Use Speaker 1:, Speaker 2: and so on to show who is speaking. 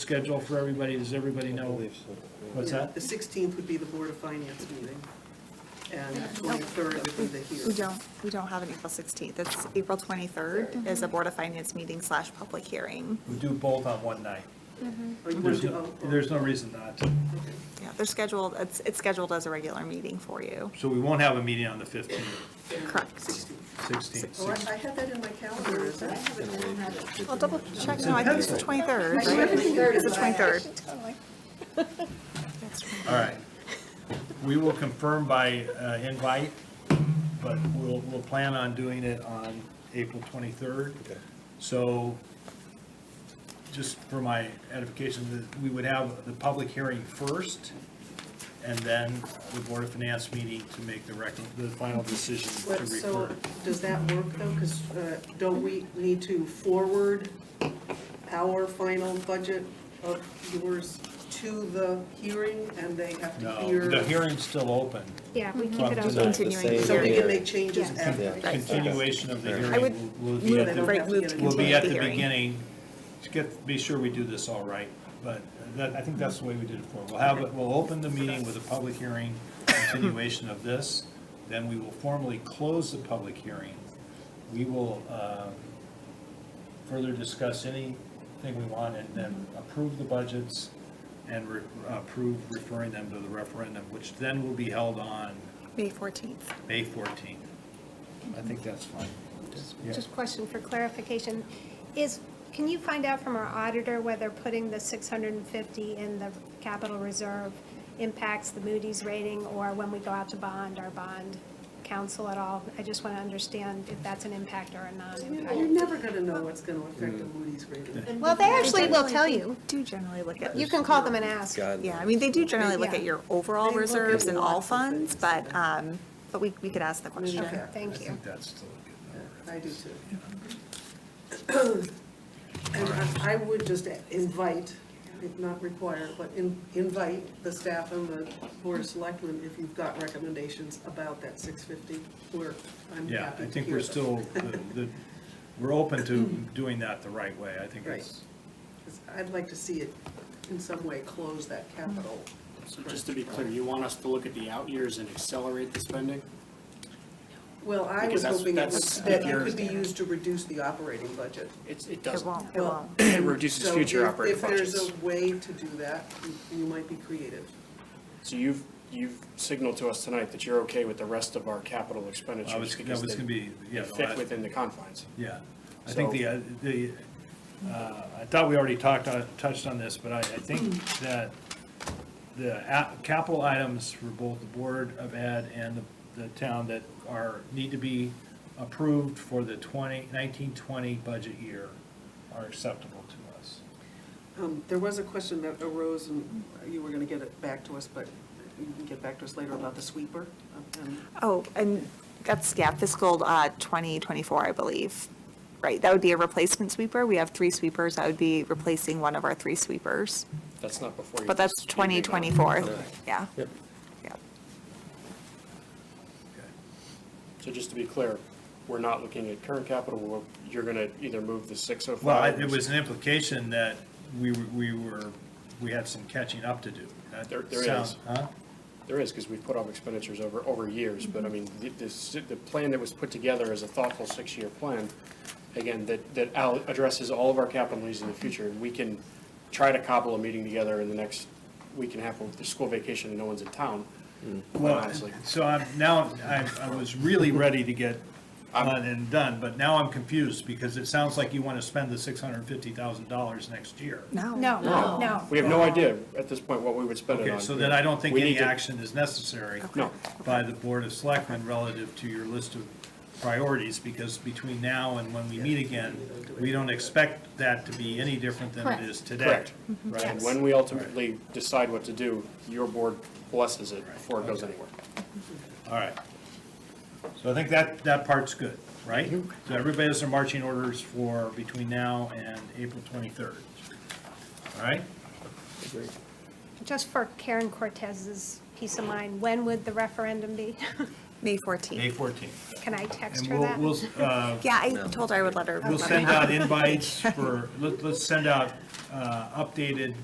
Speaker 1: schedule for everybody? Does everybody
Speaker 2: I
Speaker 1: know?
Speaker 2: believe so.
Speaker 1: What's that?
Speaker 3: The 16th would be the Board of Finance meeting, and the 23rd would be the
Speaker 4: We
Speaker 3: hearing. Oh,
Speaker 4: don't, we don't have an April 16th. It's April 23rd is a Board of Finance meeting slash public hearing.
Speaker 1: We do both on one night.
Speaker 3: Or you want
Speaker 1: There's
Speaker 3: to,
Speaker 1: no,
Speaker 3: oh, oh,
Speaker 1: there's no reason not to.
Speaker 3: okay.
Speaker 4: Yeah, they're scheduled, it's, it's scheduled as a regular meeting for you.
Speaker 1: So we won't have a meeting on the 15th,
Speaker 4: Correct.
Speaker 1: 16th.
Speaker 3: Oh, I I had that in my calendar, is that?
Speaker 4: I'll double check. No, I think it's the 23rd,
Speaker 5: I
Speaker 4: right?
Speaker 5: should be third
Speaker 4: It's the
Speaker 5: is what I-
Speaker 4: 23rd.
Speaker 1: All right. We will confirm by uh, invite, but we'll, we'll plan on doing it on April 23rd.
Speaker 2: Okay.
Speaker 1: So just for my edification, that we would have the public hearing first and then the Board of Finance meeting to make the rec, the final decision to
Speaker 3: But, so,
Speaker 1: refer.
Speaker 3: does that work though? Because don't we need to forward our final budget of yours to the hearing, and they have to
Speaker 1: No,
Speaker 3: hear?
Speaker 1: the hearing's still open.
Speaker 5: Yeah, we keep
Speaker 1: From
Speaker 5: it
Speaker 1: tonight.
Speaker 5: open.
Speaker 4: Continuing
Speaker 2: The same
Speaker 3: So they
Speaker 4: hearing.
Speaker 3: can make
Speaker 2: hearing.
Speaker 3: changes
Speaker 4: Yeah.
Speaker 3: after.
Speaker 2: Yeah.
Speaker 1: Continuation of the
Speaker 2: I
Speaker 1: hearing
Speaker 4: I would
Speaker 1: will will be at
Speaker 4: move,
Speaker 1: the
Speaker 3: don't
Speaker 4: right,
Speaker 3: have to
Speaker 4: move
Speaker 3: get
Speaker 4: to
Speaker 3: it.
Speaker 1: We'll be
Speaker 4: continue
Speaker 1: at
Speaker 4: the
Speaker 1: the
Speaker 4: hearing.
Speaker 1: beginning, just get, be sure we do this all right, but that, I think that's the way we did it before. We'll have, it- we'll open the meeting with a public hearing, continuation of this, then we will formally close the public hearing. We will, uh, further discuss anything we want and then approve the budgets and re- approve referring them to the referendum, which then will be held on
Speaker 4: May 14th.
Speaker 1: May fourteenth. I think that's fine. Yeah.
Speaker 5: Just question for clarification, is, can you find out from our auditor whether putting the 650 in the capital reserve impacts the Moody's rating, or when we go out to bond, our bond council at all? I just want to understand if that's an impact or a
Speaker 3: You're
Speaker 5: non-impact.
Speaker 3: never gonna know what's gonna affect the Moody's rating.
Speaker 5: Well, they actually will tell you.
Speaker 4: Do generally look at.
Speaker 5: You can call them and ask.
Speaker 2: God.
Speaker 4: Yeah, I mean, they do generally look at
Speaker 5: Yeah.
Speaker 4: your overall
Speaker 3: They look at
Speaker 4: reserves and all
Speaker 3: lots of
Speaker 4: funds,
Speaker 3: things,
Speaker 4: but, um, but we, we could ask the question.
Speaker 5: Okay, thank
Speaker 1: I
Speaker 5: you.
Speaker 1: think that's still a good number.
Speaker 3: I do too. And I I would just invite, if not require, but in- invite the staff and the board of selectmen if you've got recommendations about that 650, we're, I'm happy to hear
Speaker 1: Yeah, I think we're
Speaker 3: them.
Speaker 1: still, the- the- we're open to doing that the right way, I think it's,
Speaker 3: 'Cause I'd like to see it in some way close that capital.
Speaker 6: So just to be clear, you want us to look at the out years and accelerate the spending?
Speaker 3: Well, I was
Speaker 6: Because that's-
Speaker 3: hoping it
Speaker 6: that's-
Speaker 3: was- that it
Speaker 6: you're-
Speaker 3: could be used to reduce the operating budget.
Speaker 6: It's, it
Speaker 4: It
Speaker 6: doesn't.
Speaker 4: won't, it
Speaker 3: Well,
Speaker 4: won't.
Speaker 6: It reduces
Speaker 3: so
Speaker 6: future
Speaker 3: if-
Speaker 6: operating
Speaker 3: If there's
Speaker 6: budgets.
Speaker 3: a way to do that, you- you might be creative.
Speaker 6: So you've, you've signaled to us tonight that you're okay with the rest of our capital
Speaker 1: I was,
Speaker 6: expenditures
Speaker 1: that
Speaker 6: because
Speaker 1: was
Speaker 6: they
Speaker 1: gonna be, yeah.
Speaker 6: they
Speaker 1: the
Speaker 6: fit
Speaker 1: last-
Speaker 6: within the confines.
Speaker 1: Yeah, I think the, uh, the, uh, I thought we already talked, on- touched on this, but I, I think that the a- capital items for both the Board of Ed and the- the town that are, need to be approved for the 20 19-20 budget year are acceptable to us.
Speaker 3: Um, There was a question that arose, and you were going to get it back to us, but you can get back to us later about the sweeper. um,
Speaker 4: Oh, and that's, yeah, fiscal uh, 2024, I believe. Right, that would be a replacement sweeper. We have three sweepers. That would be replacing one of our three sweepers.
Speaker 6: That's not before you.
Speaker 4: But that's
Speaker 6: just- you bring up-
Speaker 4: 2024, yeah. Yep.
Speaker 2: Yep.
Speaker 6: So just to be clear, we're not looking at current capital, we're, you're gonna either move the six oh
Speaker 1: Well, I-
Speaker 6: five.
Speaker 1: it was an implication that we, were- we were, we had some catching up to do. That
Speaker 6: There- there
Speaker 1: sounds-
Speaker 6: is.
Speaker 1: Huh?
Speaker 6: There is, because we've put off expenditures over, over years, but I mean, the, this, the plan that was put together is a thoughtful six-year plan, again, that, that al- addresses all of our capital needs in the future, and we can try to cobble a meeting together in the next week and a half of the school vacation and no one's in town, quite
Speaker 1: Well,
Speaker 6: honestly.
Speaker 1: so I'm, now, I, I was really ready to get on and done, but now I'm confused because it sounds like you want to spend the six hundred and fifty thousand dollars next year.
Speaker 4: No.
Speaker 5: No, no.
Speaker 6: We have no idea at this point what we would spend it on.
Speaker 1: Okay, so then I don't think
Speaker 6: We need
Speaker 1: any
Speaker 6: to-
Speaker 1: action is necessary
Speaker 6: No,
Speaker 1: by the Board of Selectmen relative to your list of priorities, because between now and when we meet again, we don't expect that to be any different than it is today.
Speaker 6: correct.
Speaker 1: Right?
Speaker 6: And when we ultimately decide what to do, your board blesses it before it goes anywhere.
Speaker 1: All right. So I think that, that part's good, right? So everybody has their marching orders for between now and April 23rd. All right?
Speaker 5: Just for Karen Cortez's peace of mind, when would the referendum be?
Speaker 4: May
Speaker 1: May
Speaker 4: 14th.
Speaker 1: 14th.
Speaker 5: Can I text
Speaker 1: And
Speaker 5: her
Speaker 1: we'll,
Speaker 5: that?
Speaker 1: we'll, uh,
Speaker 4: Yeah, I told her I would let her.
Speaker 1: we'll
Speaker 4: let her
Speaker 1: send
Speaker 4: know.
Speaker 1: out invites for, let- let's send out uh, updated